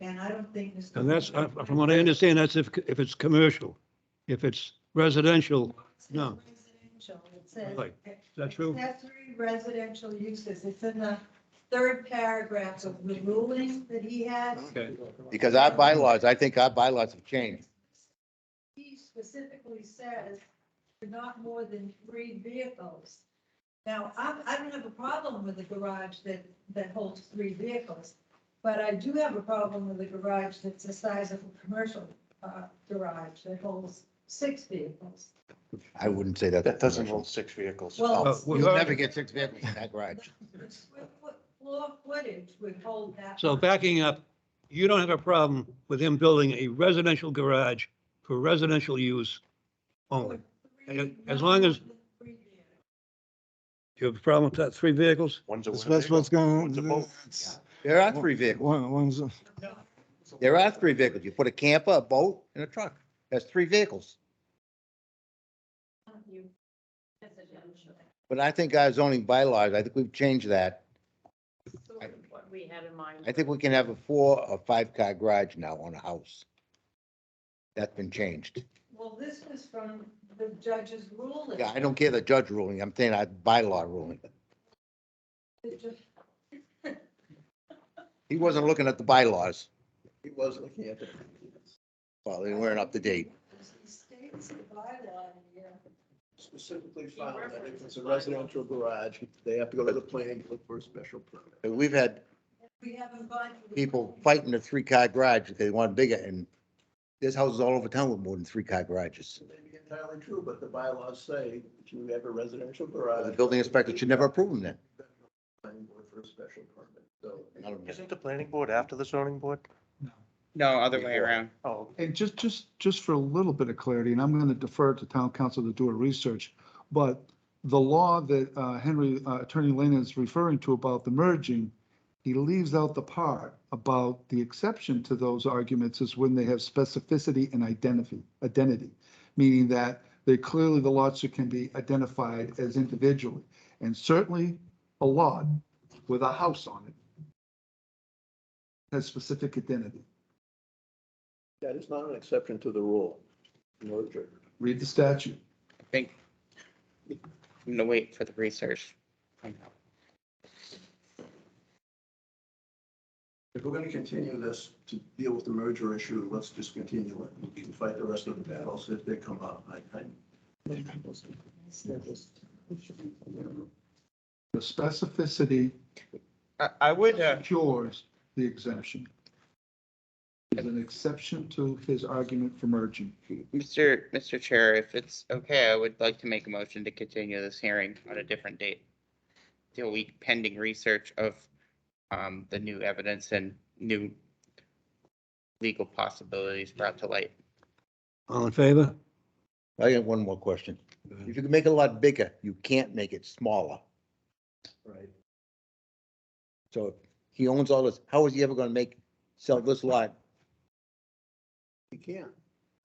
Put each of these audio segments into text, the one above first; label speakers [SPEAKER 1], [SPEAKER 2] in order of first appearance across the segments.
[SPEAKER 1] I don't think. this-
[SPEAKER 2] And that's, uh, from what I understand, that's if, if it's commercial. If it's residential,
[SPEAKER 1] It says
[SPEAKER 2] no.
[SPEAKER 1] Residential, it says.
[SPEAKER 2] Right. is that true?
[SPEAKER 1] Accessory residential uses, it's in the third paragraph of the ruling that he had.
[SPEAKER 2] Okay.
[SPEAKER 3] Because our bylaws, I think our bylaws have changed.
[SPEAKER 1] He specifically says, not more than three vehicles. Now, I, I don't have a problem with a garage that, that holds three vehicles, but I do have a problem with a garage that's the size of a commercial, uh, garage that holds six vehicles.
[SPEAKER 3] I wouldn't say that.
[SPEAKER 4] That doesn't hold six vehicles.
[SPEAKER 1] Well,
[SPEAKER 2] Uh, well,
[SPEAKER 3] You'll never get six vehicles in that garage.
[SPEAKER 1] The square foot floor footage would hold that.
[SPEAKER 2] So backing up, you don't have a problem with him building a residential garage for residential use only.
[SPEAKER 1] Three-
[SPEAKER 2] as long as-
[SPEAKER 1] Three vehicles.
[SPEAKER 2] You have a problem with that, three vehicles?
[SPEAKER 4] One's a.
[SPEAKER 5] That's
[SPEAKER 4] winner,
[SPEAKER 5] that's what's going,
[SPEAKER 4] One's a boat.
[SPEAKER 5] that's,
[SPEAKER 3] There are three vehicles.
[SPEAKER 5] one, one's, a-
[SPEAKER 3] There are three vehicles. You put a camper, a boat, and a truck. That's three vehicles. But I think our zoning bylaws, I think we've changed that.
[SPEAKER 6] What we had in mind.
[SPEAKER 3] I think we can have a four or five car garage now on a house. That's been changed.
[SPEAKER 1] Well, this was from the judge's ruling.
[SPEAKER 3] Yeah, I don't care the judge ruling. I'm saying our bylaw ruling.
[SPEAKER 1] The ju-
[SPEAKER 3] He wasn't looking at the bylaws.
[SPEAKER 7] He was looking at the.
[SPEAKER 3] Well, they weren't up to date.
[SPEAKER 1] He states the bylaw in here.
[SPEAKER 7] Specifically found that if it's a residential garage, they have to go to the planning board for a special permit.
[SPEAKER 3] But We've had
[SPEAKER 1] We haven't gone. to the-
[SPEAKER 3] people fighting a three-car garage if they want bigger, and there's houses all over town with more than three-car garages.
[SPEAKER 7] It may be entirely true, but the bylaws say if you have a residential
[SPEAKER 3] Uh, The
[SPEAKER 7] garage.
[SPEAKER 3] building inspector should never approve them then.
[SPEAKER 7] Planning board for a special permit, so.
[SPEAKER 3] I don't know.
[SPEAKER 4] Isn't the planning board after the zoning board?
[SPEAKER 8] No, other way around.
[SPEAKER 4] Oh,
[SPEAKER 5] and just, just, just for a little bit of clarity, and I'm going to defer to town council to do a research. But the law that uh, Henry, uh, Attorney Lane is referring to about the merging, he leaves out the part about the exception to those arguments is when they have specificity and identity, identity. Meaning that they clearly, the lots that can be identified as individually. And certainly a lot with a house on it has specific identity.
[SPEAKER 7] That is not an exception to the rule. Merger.
[SPEAKER 5] Read the statute.
[SPEAKER 8] I think I'm gonna wait for the research.
[SPEAKER 7] If we're gonna continue this to deal with the merger issue, let's just continue it. We can fight the rest of the battles if they come up. I, I.
[SPEAKER 5] The specificity
[SPEAKER 8] I, I would, uh,
[SPEAKER 5] secures the exemption. Is an exception to his argument for merging.
[SPEAKER 8] Mr. Mr. Chair, if it's okay, I would like to make a motion to continue this hearing on a different date. Till we pending research of, um, the new evidence and new legal possibilities brought to light.
[SPEAKER 2] All in favor?
[SPEAKER 3] I got one more question. If you can make it a lot bigger, you can't make it smaller.
[SPEAKER 7] Right.
[SPEAKER 3] So if he owns all this, how is he ever gonna make, sell this lot?
[SPEAKER 7] You can't.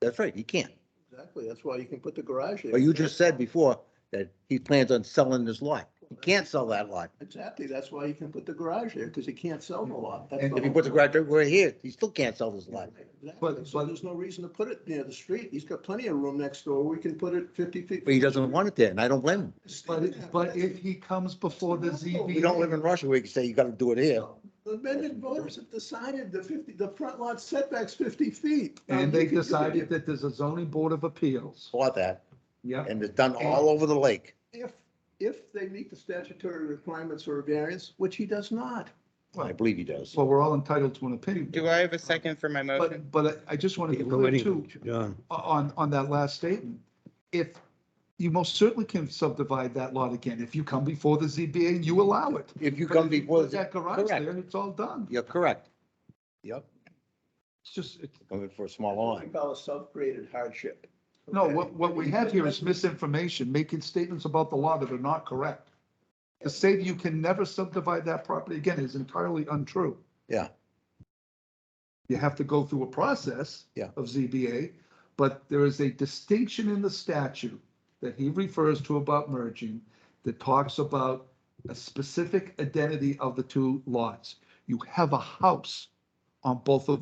[SPEAKER 3] That's right, he can't.
[SPEAKER 7] Exactly. That's why you can put the garage. there.
[SPEAKER 3] But you just said before that he plans on selling this lot. He can't sell that lot.
[SPEAKER 7] Exactly. That's why you can put the garage there, because you can't sell the lot. That's
[SPEAKER 5] And
[SPEAKER 7] the
[SPEAKER 3] If he
[SPEAKER 7] whole
[SPEAKER 3] puts a
[SPEAKER 7] point.
[SPEAKER 3] garage over here, he still can't sell this lot.
[SPEAKER 7] Exactly. So there's no reason to put it near the street. He's got plenty of room next door. We can put it fifty feet.
[SPEAKER 3] But he doesn't want it there, and I don't blame him.
[SPEAKER 5] But, it- but if he comes before the
[SPEAKER 3] We don't live
[SPEAKER 5] ZBA,
[SPEAKER 3] in Russia where you can say you gotta do it here.
[SPEAKER 7] The amended voters have decided the fifty, the front lot setback's fifty feet.
[SPEAKER 5] and they decided that there's a zoning board of appeals.
[SPEAKER 3] Saw that.
[SPEAKER 5] Yep.
[SPEAKER 3] and it's done all over the lake.
[SPEAKER 7] If, if they meet the statutory requirements for a variance, which he does not.
[SPEAKER 3] I believe he does.
[SPEAKER 5] So we're all entitled to an opinion.
[SPEAKER 8] Do I have a second for my motion?
[SPEAKER 5] But, but I I just want to be
[SPEAKER 2] We're
[SPEAKER 5] clear
[SPEAKER 2] waiting,
[SPEAKER 5] too,
[SPEAKER 2] John.
[SPEAKER 5] on, on that last statement. If, you most certainly can subdivide that lot again. If you come before the ZBA and you allow it.
[SPEAKER 3] If you
[SPEAKER 5] But
[SPEAKER 3] come
[SPEAKER 5] if you
[SPEAKER 3] before,
[SPEAKER 5] put
[SPEAKER 3] the-
[SPEAKER 5] That garage
[SPEAKER 3] correct.
[SPEAKER 5] there, it's all done.
[SPEAKER 3] you're correct. Yep.
[SPEAKER 5] It's just, it's,
[SPEAKER 3] Coming for a small
[SPEAKER 7] We
[SPEAKER 3] line.
[SPEAKER 7] call a self-created hardship.
[SPEAKER 5] no,
[SPEAKER 7] Okay?
[SPEAKER 5] what, what we have here is misinformation, making statements about the law that are not correct. To say that you can never subdivide that property again is entirely untrue.
[SPEAKER 3] Yeah.
[SPEAKER 5] You have to go through a process.
[SPEAKER 3] Yeah.
[SPEAKER 5] Of ZBA, but there is a distinction in the statute that he refers to about merging that talks about a specific identity of the two lots. You have a house on both of